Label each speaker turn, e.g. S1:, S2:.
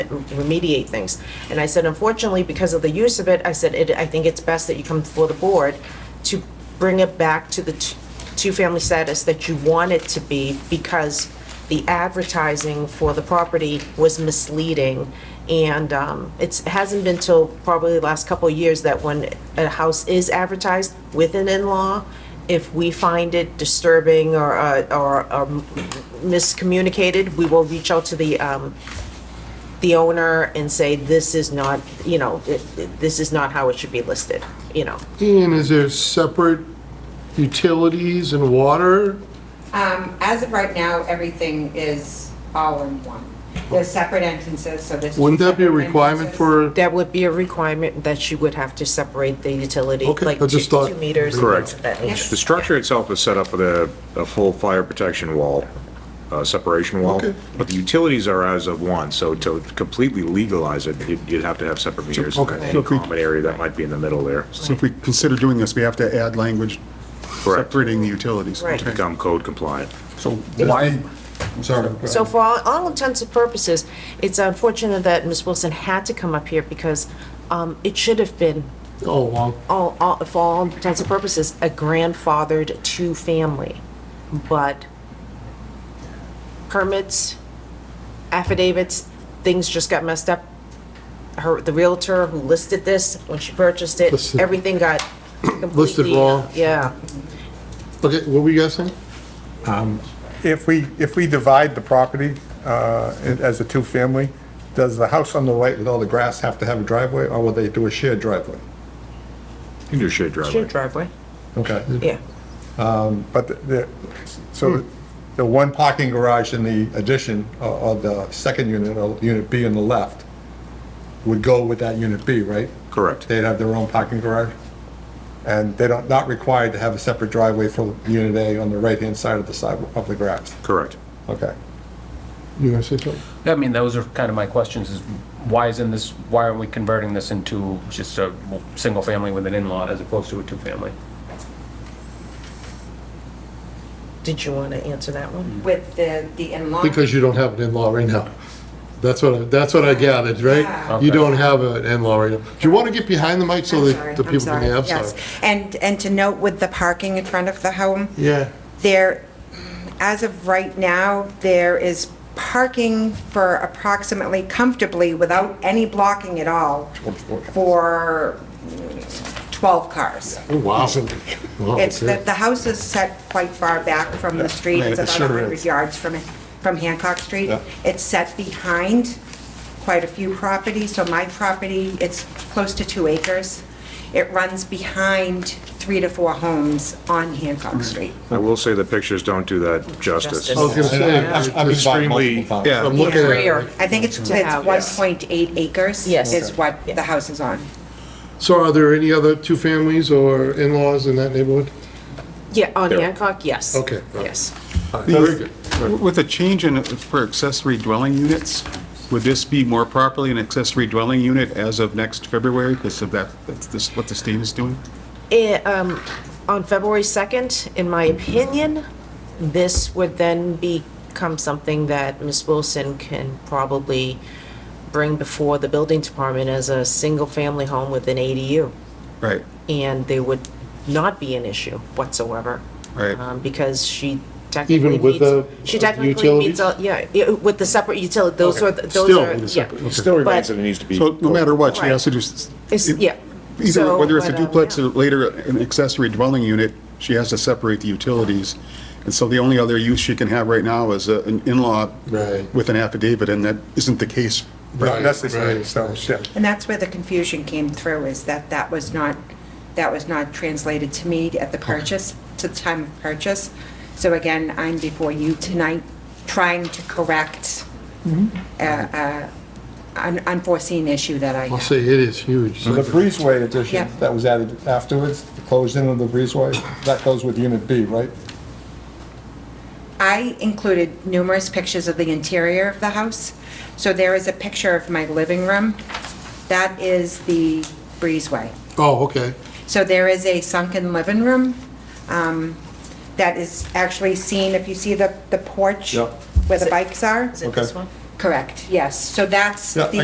S1: remediate things. And I said, unfortunately, because of the use of it, I said, it, I think it's best that you come before the board to bring it back to the t- two-family status that you want it to be because the advertising for the property was misleading. And um, it's, it hasn't been till probably the last couple of years that when a house is advertised with an in-law, if we find it disturbing or, uh, or or miscommunicated, we will reach out to the um, the owner and say, this is not, you know, it- it- this is not how it should be listed, you know.
S2: Ian, is there separate utilities and water?
S3: Um, as of right now, everything is all in one. They're separate entrances, so there's. two
S2: Wouldn't that be a
S3: separate
S2: requirement
S3: entrances.
S2: for,
S1: That would be a requirement that you would have to separate the utility,
S2: Okay,
S1: like
S2: I
S1: two
S2: just thought-
S1: two meters. and
S4: Correct.
S1: things of that nature.
S4: The structure itself is set up with a, a full fire protection wall, uh, separation wall,
S2: Okay.
S4: but the utilities are as of one, so to completely legalize it, you'd, you'd have to have separate meters.
S5: Okay.
S4: And a common area that might be in the middle there,
S5: So if we consider doing this, we have to add language
S4: Correct.
S5: separating the utilities.
S1: Right.
S5: Okay.
S4: become code compliant.
S5: So why, I'm sorry. go
S1: So
S5: ahead.
S1: for all, all intents and purposes, it's unfortunate that Ms. Wilson had to come up here because um, it should have been
S2: oh, well,
S1: all, all, for all intents and purposes, a grandfathered two-family. But permits, affidavits, things just got messed up. Her, the realtor who listed this, when she purchased it,
S2: Listed-
S1: everything got completely. uh,
S2: wrong.
S1: Yeah.
S2: okay, what were you guys saying?
S6: If we, if we divide the property uh, in- as a two-family, does the house on the right with all the grass have to have a driveway, or will they do a shared driveway?
S4: You can do shared driveway.
S1: driveway.
S6: Okay,
S1: Yeah.
S6: but the- the, so the one parking garage in the addition o- of the second unit, or Unit B on the left, would go with that Unit B, right?
S4: Correct.
S6: They'd have their own parking garage, and they don't, not required to have a separate driveway for Unit A on the right-hand side of the sidewalk, of the grass.
S4: Correct.
S6: Okay.
S2: You gonna say something?
S7: I mean, those are kind of my questions, is why isn't this, why aren't we converting this into just a single family with an in-law as opposed to a two-family?
S1: Did you want to answer that one?
S3: With the, the in-law.
S2: Because you don't have an in-law right now. That's what, I- that's what I gathered,
S3: Yeah.
S2: right? You
S7: Okay.
S2: don't have an in-law right now. Do you want to get behind the mic so
S3: I'm
S2: that
S3: sorry,
S2: the people
S3: I'm
S2: can
S3: sorry,
S2: hear? I'm
S3: yes.
S2: sorry.
S3: And, and to note with the parking in front of the home,
S2: Yeah,
S3: there, as of right now, there is parking for approximately comfortably, without any blocking at all, for mm, 12 cars.
S2: oh, wow. Wow,
S3: It's
S2: okay.
S3: that the house is set quite far back from the street,
S6: Oh, Yeah,
S3: it's
S6: it
S3: about
S6: sure
S3: 100
S6: is.
S3: yards from, from Hancock Street.
S6: Yeah.
S3: It's set behind quite a few properties, so my property, it's close to two acres. It runs behind three to four homes on Hancock
S6: Mm-hmm.
S3: Street.
S4: I will say the pictures don't do that justice.
S1: Justice.
S2: I was gonna say,
S6: I've- I've been by multiple
S4: Extremely,
S6: times.
S4: yeah,
S2: I'm looking at
S1: Rear.
S2: it.
S3: I think it's, it's
S1: To house.
S3: 1.8 acres
S1: Yes.
S3: is what
S1: Yeah.
S3: the house is on.
S2: So are there any other two families or in-laws in that neighborhood?
S1: Yeah, on Hancock, yes.
S2: Okay.
S1: Yes.
S2: Very good.
S5: With a change in, for accessory dwelling units, would this be more properly an accessory dwelling unit as of next February? Because of that, that's this- what the state is doing?
S1: It, um, on February 2nd, in my opinion, this would then become something that Ms. Wilson can probably bring before the building department as a single-family home with an ADU.
S5: Right.
S1: And there would not be an issue whatsoever.
S5: Right.
S1: um, Because she technically
S2: with the-
S1: meets, she technically meets,
S2: utilities?
S1: all- yeah, yeah, with the separate utility, those are, the- those
S2: Still
S1: are,
S2: with a
S1: yeah.
S2: separate, okay.
S4: still remains
S1: But-
S4: that it needs to be.
S5: So no matter what, she has to do, s-
S1: It's, yeah.
S5: either,
S1: So,
S5: whether it's a
S1: but, um,
S5: duplex
S1: yeah.
S5: or later an accessory dwelling unit, she has to separate the utilities. And so the only other use she can have right now is a- an in-law
S2: Right.
S5: with an affidavit, and that isn't the case.
S6: Not
S2: Right,
S6: necessary,
S2: right.
S6: so, yeah.
S3: And that's where the confusion came through, is that that was not, that was not translated to me at the purchase, to the time of purchase. So again, I'm before you tonight, trying to correct uh, uh, an unforeseen issue that I
S2: I'll
S3: have.
S2: say it is huge.
S6: The breezeway addition
S3: Yeah.
S6: that was added afterwards, the closed-in of the breezeway, that goes with Unit B, right?
S3: I included numerous pictures of the interior of the house. So there is a picture of my living room. That is the breezeway.
S2: Oh, okay.
S3: So there is a sunken living room um, that is actually seen, if you see the the porch
S6: Yeah.
S3: where the bikes are,
S1: Is it this
S6: Okay.
S1: one?
S6: Correct, yes. So that's
S3: Yeah,
S6: the